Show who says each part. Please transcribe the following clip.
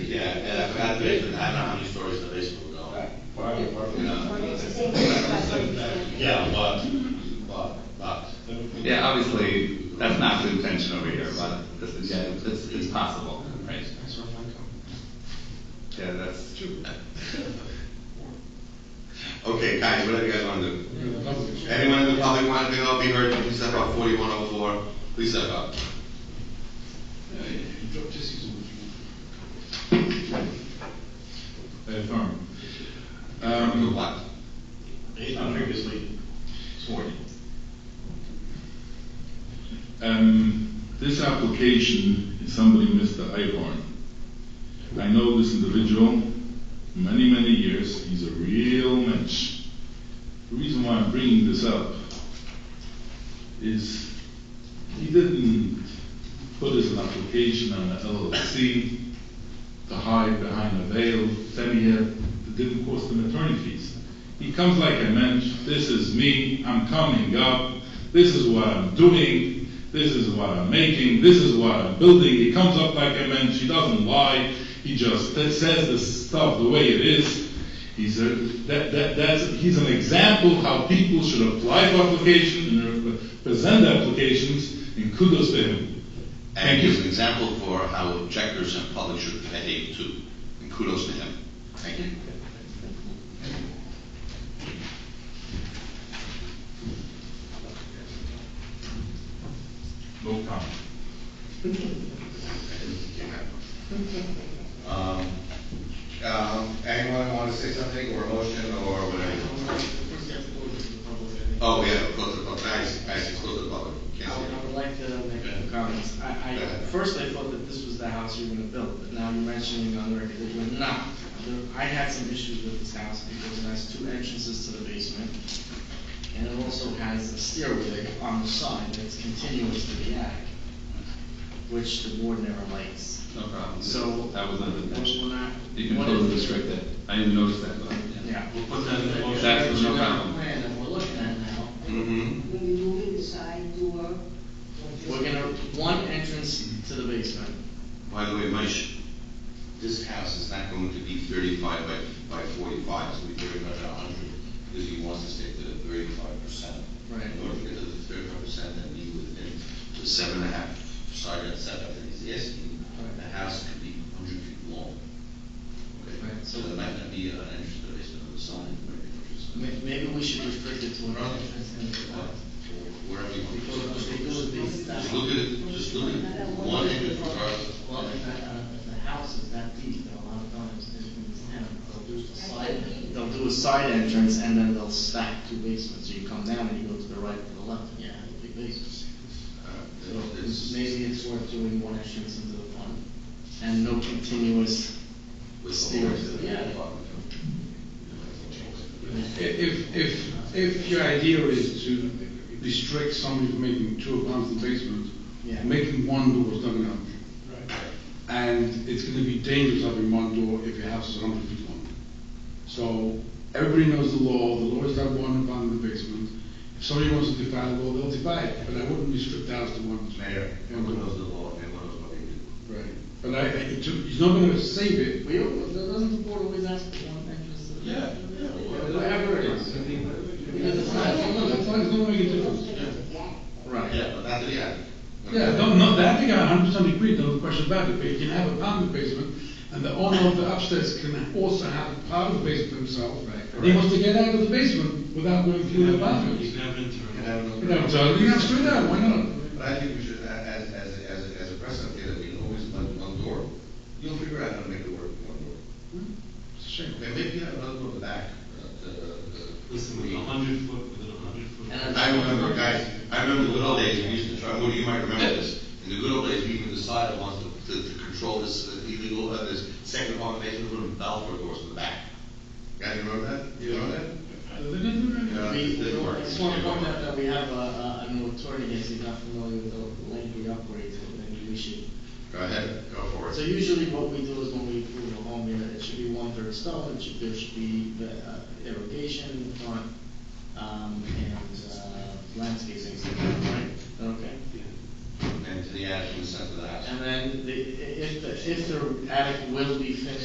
Speaker 1: got the basement, I don't know how many stories the basement will go.
Speaker 2: Private
Speaker 1: You
Speaker 2: parking.
Speaker 1: know,
Speaker 3: It's the same thing, but it's-
Speaker 1: Yeah, but, but, but,
Speaker 4: Yeah, obviously, that's not the intention over here, but this is, yeah, it's, it's possible, right? Yeah, that's true.
Speaker 1: okay, guys, whatever you guys wanna do. Anyone in the public want to be, be heard, please step up, forty-one oh four, please step up.
Speaker 5: Affirm.
Speaker 1: You
Speaker 5: Um,
Speaker 1: what?
Speaker 6: He's not previously sworn.
Speaker 5: um, this application is somebody, Mr. Ihorn. I know this individual many, many years. He's a real mensch. The reason why I'm bringing this up is he didn't put his application on the LLC to hide behind a veil. Then he had, it didn't cost him attorney fees. He comes like a mensch. This is me. I'm coming up. This is what I'm doing. This is what I'm making. This is what I'm building. He comes up like a mensch. He doesn't lie. He just t- says this stuff the way it is. He's a, that, that, that's, he's an example how people should apply for application and re- present applications, and kudos to him.
Speaker 1: And he's an example for how objectors and public should behave too, and kudos to him. Thank you.
Speaker 5: No comment.
Speaker 1: Um, um, anyone want to say something, or a motion, or whatever? Oh, yeah, close the public, nice, nice, close the public. Can't
Speaker 7: I
Speaker 1: see
Speaker 7: would, I
Speaker 1: it.
Speaker 7: would like to make a few comments. I,
Speaker 1: Go
Speaker 7: I,
Speaker 1: ahead.
Speaker 7: first I thought that this was the house you were gonna build, but now you're mentioning on record that you're not. There- I had some issues with this house because it has two entrances to the basement, and it also has a stairway on the side that's continuous to the attic, which the board never likes.
Speaker 4: No problem.
Speaker 7: So-
Speaker 4: That was not the intention.
Speaker 7: When I-
Speaker 4: You can
Speaker 7: what
Speaker 4: totally
Speaker 7: is-
Speaker 4: restrict that. I didn't notice that, but, yeah.
Speaker 7: Yeah.
Speaker 6: We'll put that in the motion.
Speaker 4: That's no
Speaker 7: Original
Speaker 4: problem.
Speaker 7: Plan that we're looking at now,
Speaker 1: Mhm.
Speaker 3: When you move in the side door. or just-
Speaker 7: we're gonna, one entrance to the basement,
Speaker 1: By the way, Mish, this house is not going to be thirty-five by, by forty-five, it's going to be very much a hundred, because he wants to stick to the thirty-five percent.
Speaker 7: Right.
Speaker 1: In order to get to the thirty-five percent, then be within the seven and a half side yard setback that he's asking,
Speaker 7: Right.
Speaker 1: the house could be hundred feet long. Okay,
Speaker 7: Right.
Speaker 1: so there might not be an entrance to the basement on the side, maybe, which is-
Speaker 7: May- maybe we should restrict it to an entrance and to the
Speaker 1: Or
Speaker 7: left.
Speaker 1: Wherever you want.
Speaker 7: Because if they do it, they stop.
Speaker 1: Just look at it, just look at one entrance regardless.
Speaker 8: Well, if the, uh, if the house is that deep, then a lot of times in this town, they'll do the slide.
Speaker 7: They'll do a side entrance and then they'll stack two basements, so you come down and you go to the right or the left, and you have a big basement. So
Speaker 1: Uh, it's-
Speaker 7: maybe it's worth doing one entrance into the front, and no continuous,
Speaker 1: With
Speaker 7: Stairs. Yeah.
Speaker 2: If, if, if your idea is to restrict somebody from making two apartments in the basement,
Speaker 7: Yeah.
Speaker 2: making one door is not gonna help you. And it's gonna be dangerous having one door if your house is hundred feet long. So, everybody knows the law, the law is that one apartment in the basement. If somebody wants to defy the law, they'll defy it, but I wouldn't restrict the house to one.
Speaker 1: Mayor, everyone knows the law, everyone knows what they do.
Speaker 2: Right, but I, I- it's, it's not gonna save it,
Speaker 7: we, don't- doesn't the board always ask for one entrance to the?
Speaker 1: Yeah, yeah, well-
Speaker 7: Whatever it is.
Speaker 2: Because it's not, no, that's not, it's not making a difference.
Speaker 7: Right,
Speaker 1: Yeah, but that's the end.
Speaker 2: Yeah, no, no, I think I hundred percent agree, no question about it, but you can have a part of the basement, and the owner of the upstairs can also have a part of the basement himself. And he wants to get out of the basement without going through the
Speaker 6: You
Speaker 2: bathroom.
Speaker 6: can have an interim.
Speaker 2: You know, so you can screw that, why not?
Speaker 1: But I think we should, a- as, as, as, as a precedent, here, that we can always let one door, you'll figure out how to make it work, with one door.
Speaker 2: It's a shame.
Speaker 1: And maybe you have another one in the back, uh, the, the.
Speaker 6: Listen, with a hundred foot, with a hundred foot.
Speaker 7: And
Speaker 1: I remember, guys, I remember the good old days, we used to try, well, you might remember this, in the good old days, we even decided once to, to, to control this uh, illegal, uh, this second apartment basement, put in balcony doors in the back. Guys, you remember that? You remember that? Uh, Yeah,
Speaker 7: We,
Speaker 1: it didn't work.
Speaker 7: I just want to point out that we have a, a a moratorium, if you're not familiar with the lengthy upgrades, and we should
Speaker 1: Go ahead, go for
Speaker 7: So
Speaker 1: it.
Speaker 7: usually what we do is when we approve a home unit, it should be one-third stone, it should, there should be uh, irrigation in front, um, and, uh, landscaping, right? Okay.
Speaker 1: And to the attic in the center of the house.
Speaker 7: And then the, i- if, the if the attic will be finished